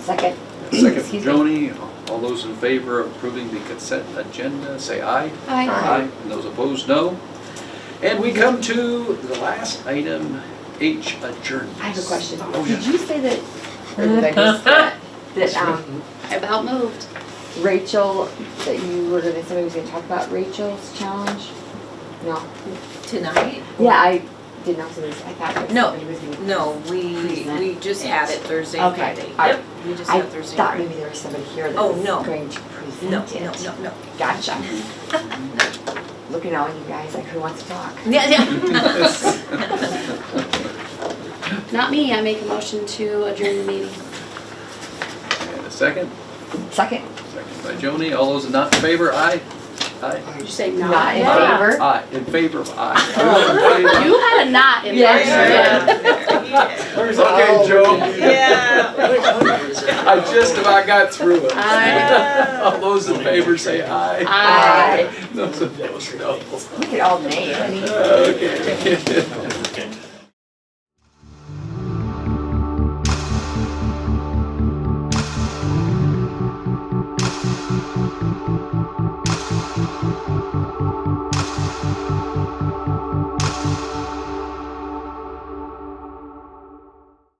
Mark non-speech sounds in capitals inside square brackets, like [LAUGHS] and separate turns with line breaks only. Second.
Second from
Excuse me.
Joni, all those in favor of approving the consent agenda, say aye.
Aye.
And those opposed, no. And we come to the last item, H, adjournment.
I have a question.
Oh,
Did
yeah.
you say that, or did I miss
[LAUGHS]
that, that um,
About moved.
Rachel, that you were gonna, somebody was gonna talk about Rachel's challenge? No.
Tonight?
Yeah, I didn't know somebody, was- I thought that
No,
somebody was gonna.
No, we, we just had it Thursday,
Okay.
Friday.
I-
Yep, we just
I
had Thursday,
thought
Friday.
maybe there was somebody here that
Oh,
was
no.
going to
No,
present it.
no, no, no.
[LAUGHS] Gotcha. Looking at all you guys, like who wants to talk?
Yeah, [LAUGHS] yeah.
Not me, I make a motion to adjourn the meeting.
And a second,
Second,
second by Joni, all those not in favor, aye. Aye.
Did you say not?
not in
Yeah.
favor?
Aye, in favor of aye. All in favor?
You had a not in
Yeah,
there.
Okay, Joe, I just about got through it.
Uh.
Aye.
[LAUGHS] All those in favor say aye.
Aye.
Those opposed, no. [LAUGHS]
Look at all nay, I mean.
Okay.